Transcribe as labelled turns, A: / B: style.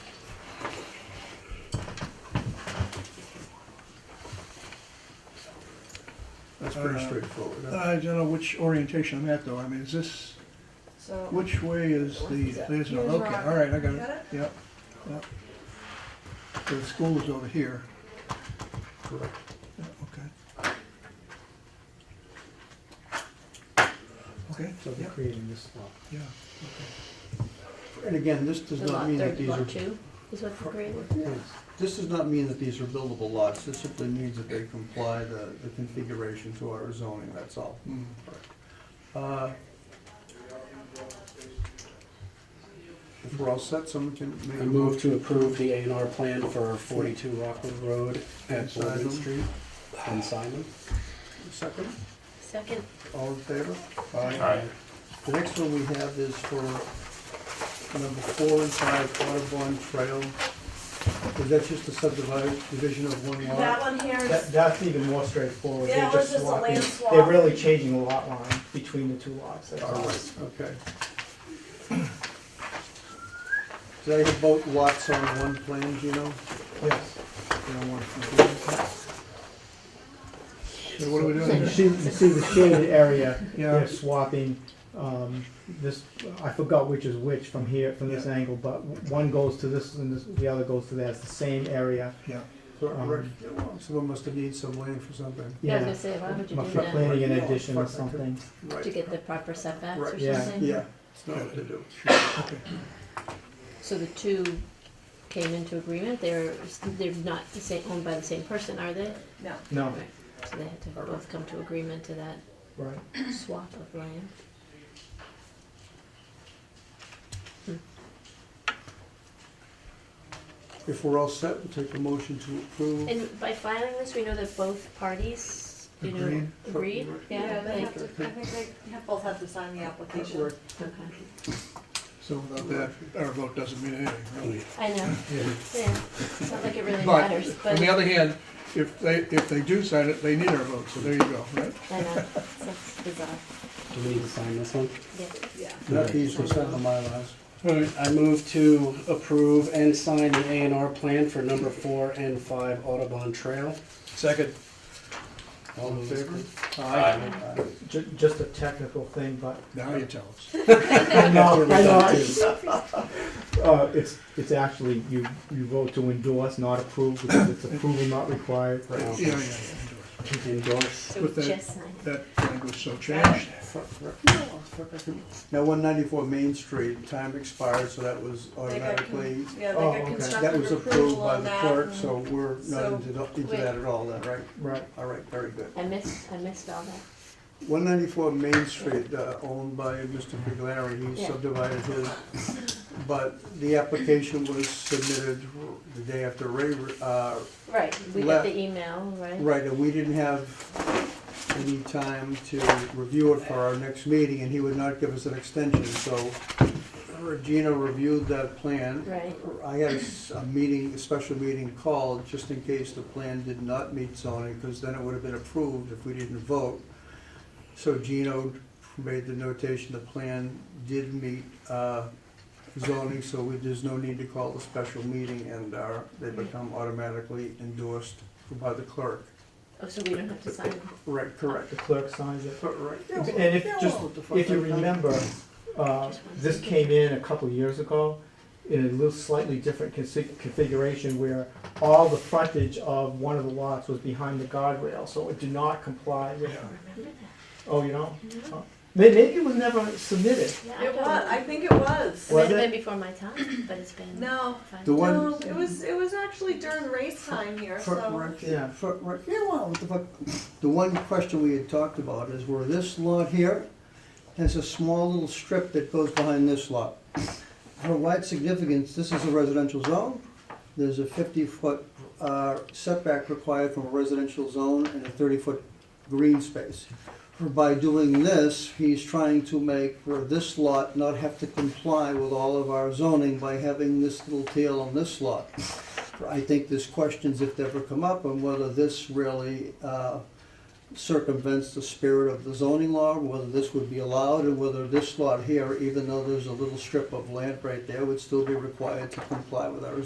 A: It's pretty
B: Uh,
A: straightforward. huh?
B: I don't know which orientation I'm at though, I mean, is this,
C: So.
B: which way is the, there's no, okay, all right, I got it, yep, yep. So The school is over here,
A: Correct.
B: yeah, okay. Okay,
D: So they're
B: yep,
D: creating this lot.
B: yeah,
D: And again, this does
E: The
D: not
E: lot
D: mean that
E: thirty,
D: these are,
E: lot two, is what the grade was?
D: Yes. this does not mean that these are buildable lots. This simply means that they comply the, the configuration to our zoning, that's all.
B: mm,
D: Uh, If we're all set, someone can make
F: I
D: a
F: move
D: move.
F: to approve the A and R plan for forty-two Rockwood Road at Boardman
D: Simon.
F: Street and Simon.
D: Second,
E: Second,
D: all in favor? The next one we have is for number four and five, Audubon Trail. Is that just a subdivision division of one lot?
C: That one here
G: That,
C: is,
G: that's even more straightforward.
C: Yeah,
G: They're
C: it was just a
G: swapping-
C: land swap.
G: They're really changing the lot line between the two lots, that's
D: All
G: all.
D: right, okay. Do they have both lots on one plan, do you know?
G: Yes.
B: so what are we
G: So
B: doing
G: you
B: here?
G: see, you see the shaded area,
B: Yeah.
G: they're swapping, um, this, I forgot which is which from here, from this
B: Yeah.
G: angle, but one goes to this and this, the other goes to that, it's the same area.
B: Yeah,
D: So,
G: Um,
D: right, Someone must have needed some land for something.
E: yeah, I was
G: Yeah,
E: gonna say, why would you
G: my
E: do that?
G: planning an
D: Yeah.
G: addition or something.
E: To
D: Right,
E: get the proper setbacks or
D: Right.
E: something?
G: Yeah.
D: yeah, it's not what to do.
B: okay,
E: So the two came into agreement, they're, they're not the same, owned by the same person, are they?
C: no,
G: No,
E: So they had to both come to agreement to that
G: right.
E: swap of land.
D: If we're all set, we'll take a motion to approve.
E: And by filing this, we know that both parties, you know,
B: Agreed.
E: agreed,
C: yeah,
E: yeah,
C: they
E: like,
C: have to, I think they have both have to sign the application.
D: Right.
E: okay,
B: so without that, our vote doesn't mean anything, really.
E: I know, yeah, it's not like it really
B: But,
E: matters,
B: on
E: but,
B: the other hand, if they, if they do sign it, they need our vote, so there you go, right?
E: I know, it's bizarre,
F: Do we need to sign this one?
E: yeah.
C: Yeah.
D: Not these, it's not the Mylars.
F: All right, I move to approve and sign the A and R plan for number four and five Audubon Trail.
B: Second.
D: All in favor? Aye.
G: Ju- just a technical thing, but
B: Now you tell us.
G: I know, I know.
F: Redundant.
G: Uh, it's, it's actually, you, you vote to endorse, not approve, because it's approval not required.
B: Yeah, yeah, yeah.
F: Endorse.
E: So
B: With that-
E: just sign it.
B: That language so changed.
D: Fuck, right. Now, one ninety-four Main Street, time expired, so that was
C: They got con-
D: automatically,
C: Yeah, they
G: Oh, okay.
C: got
D: that was
C: constructive
D: approved
C: approval
D: by
C: on
D: the
C: that.
D: clerk,
C: and-
D: so we're not
C: So,
D: into into
E: wait.
D: that at all, then, right?
G: Right.
D: All right, very good.
E: I missed, I missed all that,
D: 194 Main Street, uh, owned by Mr. Biglari, he
E: Yeah.
D: subdivided his, but the application was submitted the day after Ray, uh,
E: right, we got
D: Left.
E: the email, right?
D: right, and we didn't have any time to review it for our next meeting, and he would not give us an extension, so Regina reviewed that plan.
E: Right.
D: I had a s- a meeting, a special meeting called, just in case the plan did not meet zoning, because then it would have been approved if we didn't vote. So Gino made the notation, the plan did meet uh, zoning, so we- there's no need to call a special meeting, and uh, they become automatically endorsed by the clerk.
E: Oh, so we don't have to sign it?
D: Right, correct.
G: The clerk signs it.
D: Right.
G: And if, just, if you remember, uh, this came in a couple of years ago in a little slightly different consi- configuration where all the frontage of one of the lots was behind the guardrail, so it did not comply with,
E: Remember that?
G: oh, you know? Oh. May- Maybe it was never submitted.
E: Yeah, I
C: It
E: don't
C: was,
E: know.
C: I think it was.
E: It might
G: Was
E: have been
G: it?
E: before my time, but it's been.
C: No,
E: fine.
D: The one-
C: no, it was, it was actually during race time here, so.
G: Yeah.
D: For- right, yeah, well, what the fuck, the one question we had talked about is where this lot here has a small little strip that goes behind this lot. For wide significance, this is a residential zone, there's a fifty-foot uh, setback required from a residential zone and a thirty-foot green space. By doing this, he's trying to make for this lot not have to comply with all of our zoning by having this little tail on this lot. I think there's questions if they ever come up on whether this really uh, circumvents the spirit of the zoning law, whether this would be allowed, and whether this lot here, even though there's a little strip of land right there, would still be required to comply with our